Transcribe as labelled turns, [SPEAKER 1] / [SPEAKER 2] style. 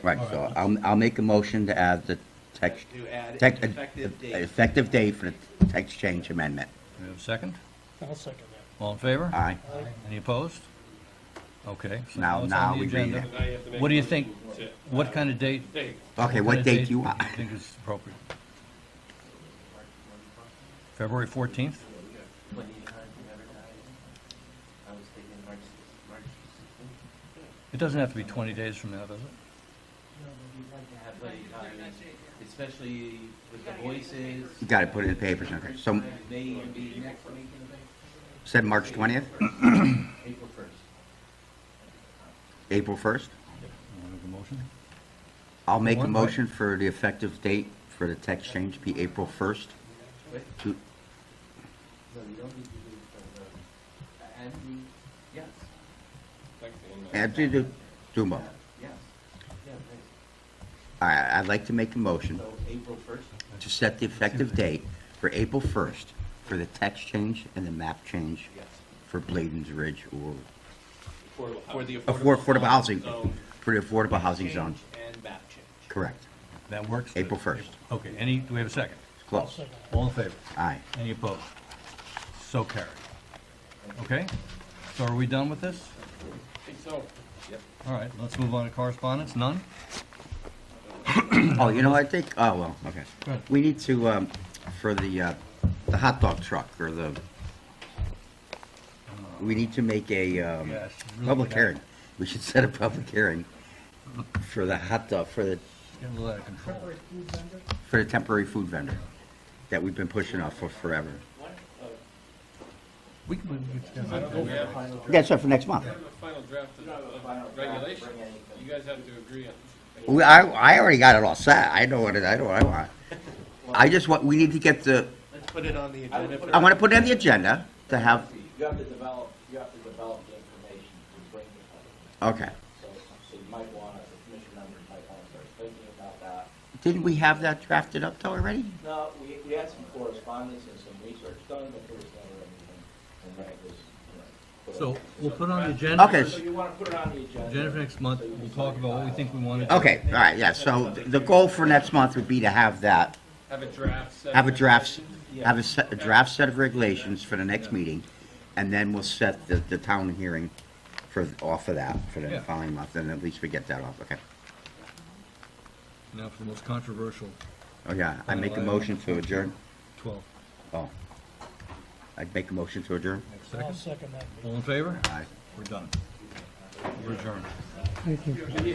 [SPEAKER 1] Right, so I'll, I'll make a motion to add the text.
[SPEAKER 2] To add
[SPEAKER 1] tec-
[SPEAKER 2] an effective date.
[SPEAKER 1] Effective date for the text change amendment.
[SPEAKER 3] Do we have a second?
[SPEAKER 4] I'll second
[SPEAKER 3] All in favor?
[SPEAKER 1] Aye.
[SPEAKER 3] Any opposed? Okay. so
[SPEAKER 1] Now-
[SPEAKER 3] it's on
[SPEAKER 1] now
[SPEAKER 3] the
[SPEAKER 1] we read
[SPEAKER 3] agenda.
[SPEAKER 1] it.
[SPEAKER 5] Now you have to make
[SPEAKER 3] What do you
[SPEAKER 5] a
[SPEAKER 3] think,
[SPEAKER 5] motion to-
[SPEAKER 3] what kind of date?
[SPEAKER 5] Date.
[SPEAKER 1] Okay,
[SPEAKER 3] kind
[SPEAKER 1] what
[SPEAKER 3] of
[SPEAKER 1] date do you want?
[SPEAKER 3] do you think is appropriate? February 14th?
[SPEAKER 6] What do you have to advertise? I was thinking March, March sixteenth.
[SPEAKER 3] It doesn't have to be 20 days from now, does it?
[SPEAKER 6] You'd like to have plenty of time, especially with the voices.
[SPEAKER 1] You gotta put it in the papers, okay, so,
[SPEAKER 6] May even be next week,
[SPEAKER 1] said March twentieth,
[SPEAKER 6] April first.
[SPEAKER 1] April first?
[SPEAKER 3] Want to make a motion?
[SPEAKER 1] I'll make a
[SPEAKER 3] One, right.
[SPEAKER 1] motion for the effective date for the text change be April first.
[SPEAKER 6] Wait,
[SPEAKER 1] To,
[SPEAKER 6] no, you don't need to do it for the, and the, yes,
[SPEAKER 5] Like the end of-
[SPEAKER 1] and do, do, do them both.
[SPEAKER 6] yes, yeah, right.
[SPEAKER 1] All right, I'd like to make a motion
[SPEAKER 6] So April first,
[SPEAKER 1] to set the effective date for April first for the text change and the map change
[SPEAKER 6] yes.
[SPEAKER 1] for Bladen's Ridge or,
[SPEAKER 5] Affordable
[SPEAKER 2] For the
[SPEAKER 5] housing.
[SPEAKER 1] Affor- affordable housing,
[SPEAKER 2] zone
[SPEAKER 1] for the affordable housing
[SPEAKER 2] change
[SPEAKER 1] zone.
[SPEAKER 2] And map change.
[SPEAKER 1] Correct.
[SPEAKER 3] That works?
[SPEAKER 1] April 1st.
[SPEAKER 3] Okay, any, do we have a second?
[SPEAKER 1] It's
[SPEAKER 4] that. I'll
[SPEAKER 1] close.
[SPEAKER 4] second that.
[SPEAKER 3] All in favor?
[SPEAKER 1] Aye.
[SPEAKER 3] Any opposed? So carried. Okay, so are we done with this?
[SPEAKER 5] I think so.
[SPEAKER 3] All right, let's move on to correspondence, none?
[SPEAKER 1] Oh, you know, I think, oh, well, okay.
[SPEAKER 3] Go ahead.
[SPEAKER 1] We need to, um, for the, uh, the hot dog truck or the, we need to make a, um,
[SPEAKER 3] Yes, really
[SPEAKER 1] public
[SPEAKER 3] bad.
[SPEAKER 1] hearing. We should set a public hearing for the hot dog, for the,
[SPEAKER 3] Getting a little out of control.
[SPEAKER 1] for the temporary food vendor that we've been pushing off for forever.
[SPEAKER 3] We can, we can-
[SPEAKER 5] I don't know if we have, we
[SPEAKER 1] Yeah, so for next month.
[SPEAKER 5] have a final draft of- of regulation. You guys have to agree on.
[SPEAKER 1] We, I, I already got it all set. I know what, it- I know what I want. I just want, we need to get the,
[SPEAKER 2] Let's put it on the agenda for.
[SPEAKER 1] I want to put it on the agenda to have,
[SPEAKER 7] You have to develop, you have to develop the information to bring to public.
[SPEAKER 1] okay.
[SPEAKER 7] So, so you might want to, the commission members might want to start thinking about that.
[SPEAKER 1] Didn't we have that drafted up though already?
[SPEAKER 7] No, we, we had some correspondence and some research done, but there was never anything, and that was, you know. put
[SPEAKER 3] So
[SPEAKER 7] up.
[SPEAKER 3] we'll put on the agenda.
[SPEAKER 1] Okay.
[SPEAKER 7] So you want to put it on the agenda.
[SPEAKER 3] Agenda for next month, we'll talk about what we think we want to do.
[SPEAKER 1] Okay, all right, yeah, so the goal for next month would be to have that,
[SPEAKER 5] Have a draft. set
[SPEAKER 1] have a
[SPEAKER 5] of
[SPEAKER 1] draft,
[SPEAKER 5] regulations.
[SPEAKER 1] have a set, a draft set of regulations for the next meeting, and then we'll set the, the town hearing for, off of that, for the
[SPEAKER 3] Yeah.
[SPEAKER 1] following month, and at least we get that off, okay?
[SPEAKER 3] Now for the most controversial
[SPEAKER 1] Oh, yeah, I make a motion to adjourn,
[SPEAKER 3] 12.
[SPEAKER 1] oh. I'd make a motion to adjourn?
[SPEAKER 4] I'll
[SPEAKER 3] Second,
[SPEAKER 4] second that.
[SPEAKER 3] all in favor?
[SPEAKER 1] Aye.
[SPEAKER 3] We're done. We're adjourned.